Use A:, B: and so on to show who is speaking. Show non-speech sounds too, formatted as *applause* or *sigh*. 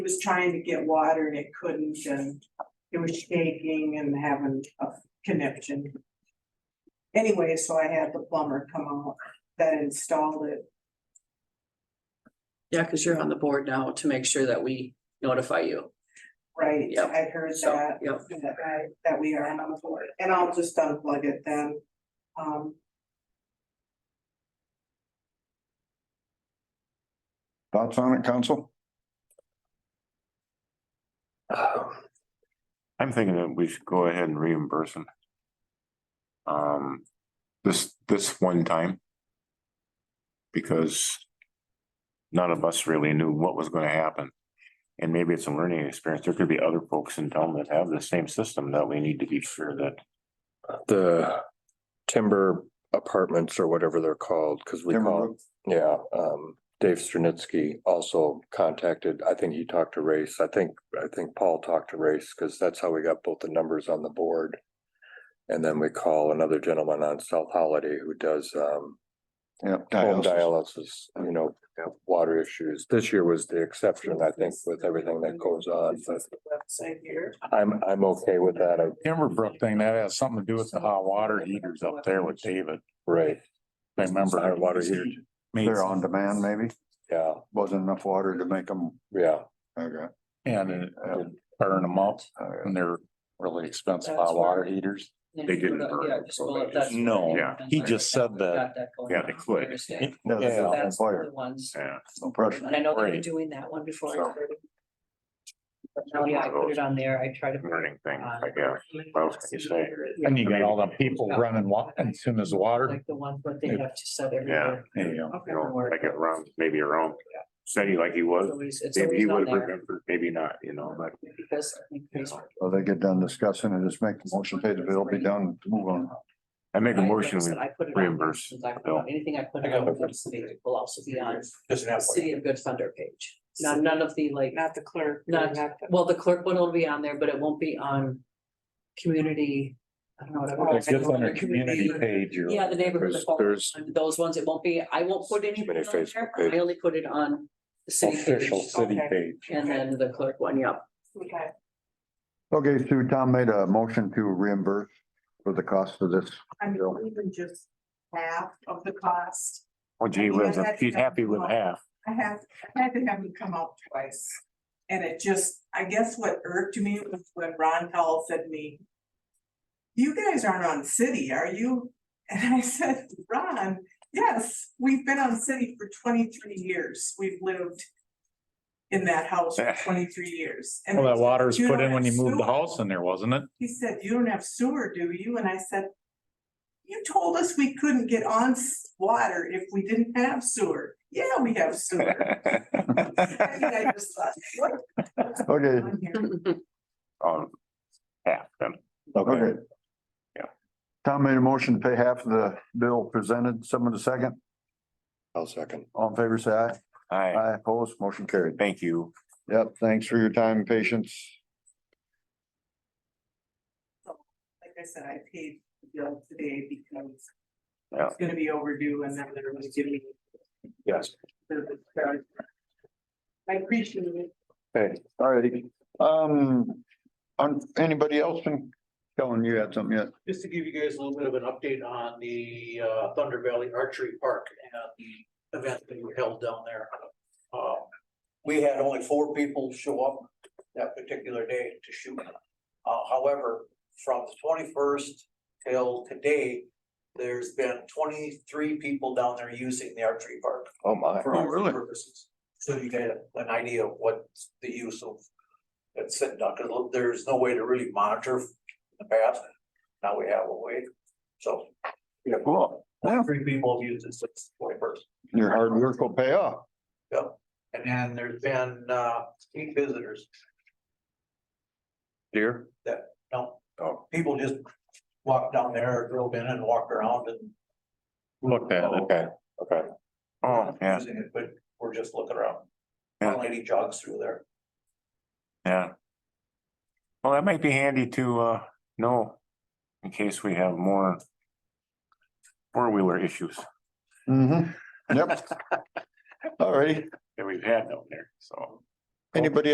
A: It was trying to get water and it couldn't and it was shaking and having a connection. Anyway, so I had the plumber come out that installed it.
B: Yeah, because you're on the board now to make sure that we notify you.
A: Right,
B: Yep.
A: I heard
B: So,
A: that,
B: yep,
A: that I, that we are on the board, and I'll just unplug it then. Um,
C: Thoughts on it, council?
D: I'm thinking that we should go ahead and reimburse them. Um, this, this one time. Because. None of us really knew what was gonna happen. And maybe it's a learning experience. There could be other folks in town that have the same system that we need to be sure that.
E: the timber apartments or whatever they're called, because we call, yeah, um, Dave Strunitzky also contacted, I think he talked to Race, I think, I think Paul talked to Race, because that's how we got both the numbers on the board. And then we call another gentleman on South Holiday who does, um,
C: Yeah. dialysis.
E: home dialysis, you know, water issues. This year was the exception, I think, with everything that goes on, but
A: website here.
E: I'm, I'm okay with that, I,
D: Timberbrook thing, that has something to do with the hot water heaters up there with David.
E: right,
D: I remember.
E: Hot water heater.
D: Made
C: They're on demand, maybe.
E: yeah,
C: Wasn't enough water to make them.
E: yeah.
C: Okay.
D: And it uh, burn them up and they're really expensive hot water heaters. They didn't burn
B: Yeah,
D: it,
B: just
D: so
B: well,
D: they
B: if that's-
D: just- No, yeah, he just said that.
B: Got going
D: Yeah, they
B: on, I
D: could.
B: understand.
C: No,
B: So
C: there's
D: Yeah.
C: no
B: that's the
C: fire.
B: other ones.
D: Yeah.
C: No pressure.
B: And I know they were
D: Right.
B: doing that one before. I
D: So-
B: started. But Now, yeah, I put it on there. I try to. put
D: Learning
B: it
D: thing,
B: on-
D: I guess. What else can you say?
B: Yeah,
F: And you got all the people running wa- as soon as water,
B: Like the ones that they have to set every
D: Yeah.
B: year.
F: you know,
D: You know, like it runs maybe around, steady like he
B: It's
D: was,
B: always, it's
D: maybe he
B: always on
D: would
B: there.
D: have remembered, maybe not, you know, but.
B: Because I think
D: you
B: these
D: know.
C: So they get done discussing and just make the motion, pay the bill, be done, move on.
D: I make a
B: I
D: motion,
B: noticed
D: we
B: that I put it on
D: reimburse
B: since I put
D: bill.
B: on Anything I put
F: I got
B: on
F: one.
B: publicity will also be on City of Good Thunder page. None, none of the like,
A: Not the clerk.
B: Not-
A: the-
B: well, the clerk one will be on there, but it won't be on community, I don't know. what I want-
F: it gets on our Oh, community page. or-
B: Yeah, the neighborhood.
E: There's-
B: the phone,
E: there's-
B: Those ones, it won't be, I won't put any.
E: Too many Facebook
B: I
E: pages.
B: only put it on the city page
F: Official city
A: Okay.
F: page.
B: and then the clerk one, yep.
A: Okay.
C: Okay, Sue, Tom made a motion to reimburse for the cost of this.
A: I mean,
C: Bill.
A: even just half of the cost,
D: Well, Oh, gee whiz, if she's happy with half.
A: I have, I had to have him come out twice. And it just, I guess what irked me was when Ron Howell said to me. You guys aren't on city, are you? And I said, Ron, yes, we've been on city for twenty-three years, we've lived. In that house
F: *laughs*
A: for twenty-three years. And
F: Well, that water was
A: You
F: put
A: don't
F: in when you
A: have
F: moved the
A: sewer.
F: house in there, wasn't it?
A: He said, you don't have sewer, do you? And I said. You told us we couldn't get on s- water if we didn't have sewer. Yeah, we have
D: *laughs*
A: sewer. And I just thought, what
C: Okay,
A: on here?
D: *laughs* Um, half then.
C: okay.
D: Yeah.
C: Tom made a motion to pay half of the bill presented, someone to second,
E: I'll second.
C: all in favor, say aye.
D: Hi,
C: Aye, opposed, motion carried.
D: thank you.
C: Yep, thanks for your time and patience.
A: Like I said, I paid the bill today because.
D: Yeah.
A: It's gonna be overdue and then they're gonna give me.
E: Yes.
A: the- the- I appreciate it.
C: Okay, all righty. Um, on, anybody else been telling you had something yet?
G: just to give you guys a little bit of an update on the uh, Thunder Valley Archery Park and the event that we held down there. Uh, We had only four people show up that particular day to shoot. Uh, However, from the twenty-first till today, there's been twenty-three people down there using the archery park.
E: Oh, my.
G: for
C: Oh,
G: archery
C: really?
G: purposes. So you get an idea of what the use of that sitting down, because there's no way to really monitor in the past. Now we have a way, so. Yeah,
C: Cool. Yeah,
G: Three people have used it since twenty first.
C: your hard work will pay off.
G: And then there's been uh eight visitors,
E: Dear.
G: no,
E: Oh,
G: people just walked down there, drove in and walked around and.
F: Looked at it.
E: okay, okay.
D: Oh, yeah,
G: Using it, but we're just looking around.
D: Yeah.
G: One lady jogs through there.
D: yeah. Well, that might be handy to uh know in case we have more four-wheeler issues
C: Mm-hmm. Yep. All righty.
D: that we've had down there, so.
C: Anybody